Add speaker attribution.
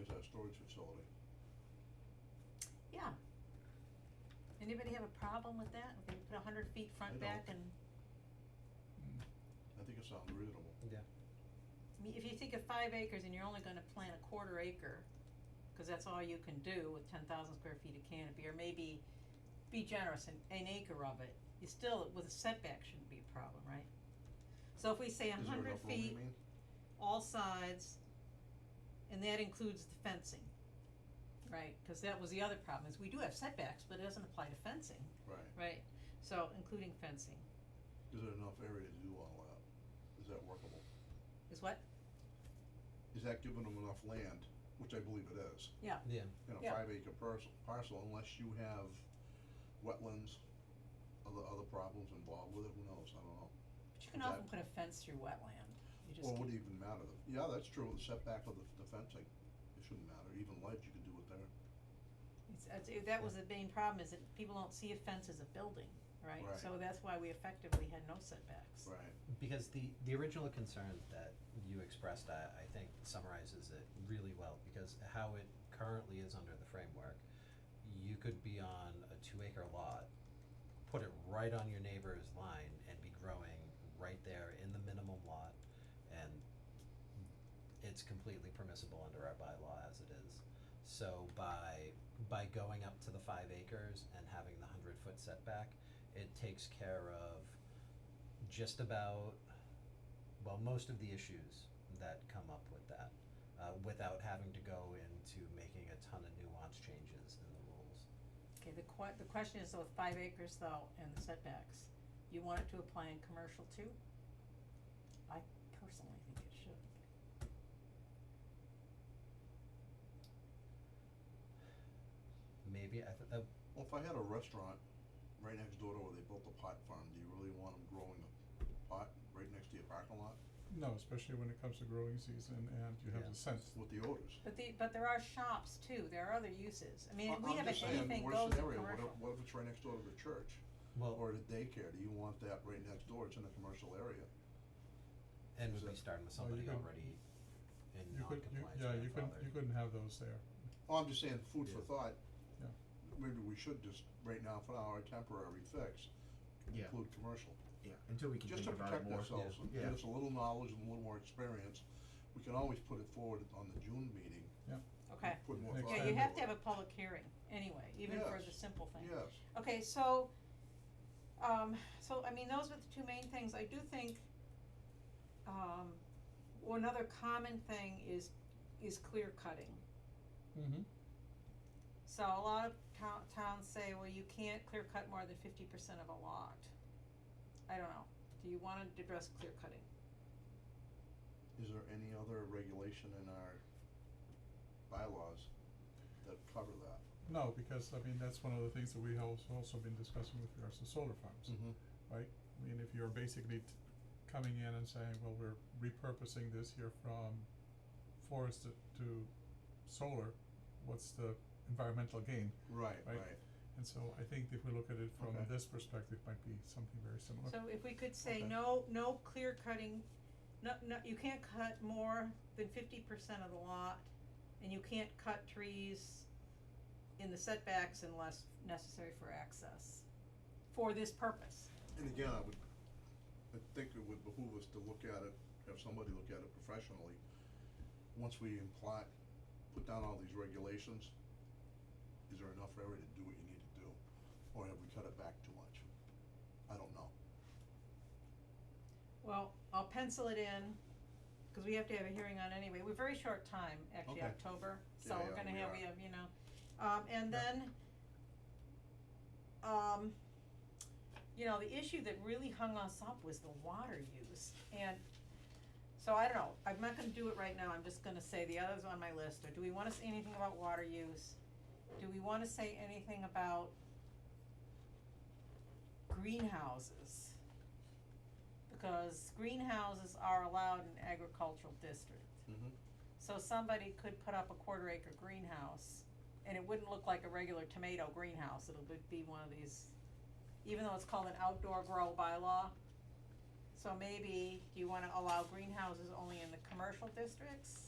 Speaker 1: is our storage facility.
Speaker 2: Yeah. Anybody have a problem with that? If you put a hundred feet front
Speaker 1: I don't.
Speaker 2: back and,
Speaker 1: I think it sounds reasonable.
Speaker 3: Yeah.
Speaker 2: I mean, if you think of five acres and you're only gonna plant a quarter acre, cause that's all you can do with ten thousand square feet of canopy, or maybe be generous and an acre of it, you still, with a setback shouldn't be a problem, right? So if we say a hundred
Speaker 1: Is there enough room, you
Speaker 2: feet,
Speaker 1: mean?
Speaker 2: all sides, and that includes the fencing. Right, cause that was the other problem, is we do have setbacks, but it doesn't apply to fencing.
Speaker 1: Right.
Speaker 2: Right, so including fencing,
Speaker 1: Is there enough area to do all that? Is that workable?
Speaker 2: is what?
Speaker 1: Is that giving them enough land, which I believe it is,
Speaker 3: Yeah,
Speaker 1: in a
Speaker 2: Yeah.
Speaker 1: five acre parcel, parcel unless you have wetlands, other, other problems involved with it, who knows, I don't know.
Speaker 2: But you can
Speaker 1: That-
Speaker 2: often put a fence through wetland, you just
Speaker 1: Well, would
Speaker 2: can't-
Speaker 1: it even matter? Yeah, that's true, the setback of the, the fencing, it shouldn't matter, even ledge, you could do it there.
Speaker 2: it's, it's, it- that was the main problem, is that people don't see a fence as a building, right?
Speaker 1: Right.
Speaker 2: So that's why we effectively had no setbacks.
Speaker 1: Right.
Speaker 3: because the, the original concern that you expressed, I, I think summarizes it really well, because how it currently is under the framework, you could be on a two acre lot, put it right on your neighbor's line and be growing right there in the minimum lot, and it's completely permissible under our bylaw as it is. So by, by going up to the five acres and having the hundred foot setback, it takes care of just about, well, most of the issues that come up with that, uh, without having to go into making a ton of nuance changes in the rules.
Speaker 2: Okay, the que- the question is though, with five acres though, and the setbacks, you want it to apply in commercial too? I personally think it should.
Speaker 3: Maybe, I th- uh,
Speaker 1: Well, if I had a restaurant right next door to where they built a pot farm, do you really want them growing a pot right next to your parking lot
Speaker 4: No, especially when it comes to growing season and you have
Speaker 3: Yeah.
Speaker 4: the sense.
Speaker 1: with the odors?
Speaker 2: But the, but there are shops too, there are other uses, I mean,
Speaker 1: I-
Speaker 2: we
Speaker 1: I'm
Speaker 2: haven't,
Speaker 1: just saying,
Speaker 2: anything
Speaker 1: worst
Speaker 2: goes in
Speaker 1: scenario,
Speaker 2: commercial.
Speaker 1: what if- What if it's right next door to the church
Speaker 3: well,
Speaker 1: or the daycare? Do you want that right next door? It's in a commercial area.
Speaker 3: and
Speaker 1: is
Speaker 3: we'd be
Speaker 1: it-
Speaker 3: starting with
Speaker 4: Well, you
Speaker 3: somebody
Speaker 4: could-
Speaker 3: already in
Speaker 4: You could, you,
Speaker 3: non-compliance
Speaker 4: yeah, you couldn't,
Speaker 3: grandfathered.
Speaker 4: you couldn't have those there.
Speaker 1: Oh, I'm just saying, food for
Speaker 3: Yeah.
Speaker 1: thought.
Speaker 4: Yeah.
Speaker 1: Maybe we should just, right now, for our temporary fix,
Speaker 5: Yeah.
Speaker 1: include commercial.
Speaker 5: Yeah, until we can
Speaker 1: Just to
Speaker 5: think about it
Speaker 1: protect
Speaker 5: more.
Speaker 1: ourselves and
Speaker 5: Yeah.
Speaker 1: get us a little knowledge and a little more experience. We can always put it forward on the June meeting.
Speaker 2: Okay.
Speaker 1: Put more
Speaker 4: Next
Speaker 1: thought
Speaker 2: Yeah,
Speaker 4: time.
Speaker 2: you
Speaker 1: into
Speaker 2: have to
Speaker 1: it.
Speaker 2: have a public hearing anyway, even for
Speaker 1: Yes.
Speaker 2: the simple thing.
Speaker 1: Yes.
Speaker 2: Okay, so, um, so, I mean, those are the two main things, I do think, um, well, another common thing is, is clear cutting.
Speaker 4: Mm-hmm.
Speaker 2: So a lot of town, towns say, well, you can't clear cut more than fifty percent of a lot. I don't know, do you wanna address clear cutting?
Speaker 1: Is there any other regulation in our bylaws that cover that?
Speaker 4: No, because, I mean, that's one of the things that we have also been discussing with regards to solar farms.
Speaker 1: Mm-hmm.
Speaker 4: I mean, if you're basically t- coming in and saying, well, we're repurposing this here from forest to, to solar, what's the environmental gain?
Speaker 1: Right,
Speaker 4: Right.
Speaker 1: right.
Speaker 4: And so I think if we look at it from
Speaker 1: Okay.
Speaker 4: this perspective, might be something very similar.
Speaker 2: So if we could say,
Speaker 1: Okay.
Speaker 2: no, no clear cutting, no, no, you can't cut more than fifty percent of the lot, and you can't cut trees in the setbacks unless necessary for access, for this purpose.
Speaker 1: And again, I would, I think it would behoove us to look at it, have somebody look at it professionally. Once we imply, put down all these regulations, is there enough area to do what you need to do? Or have we cut it back too much? I don't know.
Speaker 2: Well, I'll pencil it in, cause we have to have a hearing on anyway, we're very short time, actually,
Speaker 1: Okay.
Speaker 2: October, so
Speaker 1: Yeah,
Speaker 2: we're
Speaker 1: yeah,
Speaker 2: gonna
Speaker 1: we
Speaker 2: have,
Speaker 1: are.
Speaker 2: we have, you know, um, and
Speaker 4: Yeah.
Speaker 2: then, um, you know, the issue that really hung us up was the water use, and, so I don't know, I'm not gonna do it right now, I'm just gonna say the others on my list, or do we wanna say anything about water use? Do we wanna say anything about greenhouses? Because greenhouses are allowed in agricultural district.
Speaker 1: Mm-hmm.
Speaker 2: So somebody could put up a quarter acre greenhouse and it wouldn't look like a regular tomato greenhouse, it'll be- be one of these, even though it's called an outdoor grow bylaw. So maybe, do you wanna allow greenhouses only in the commercial districts?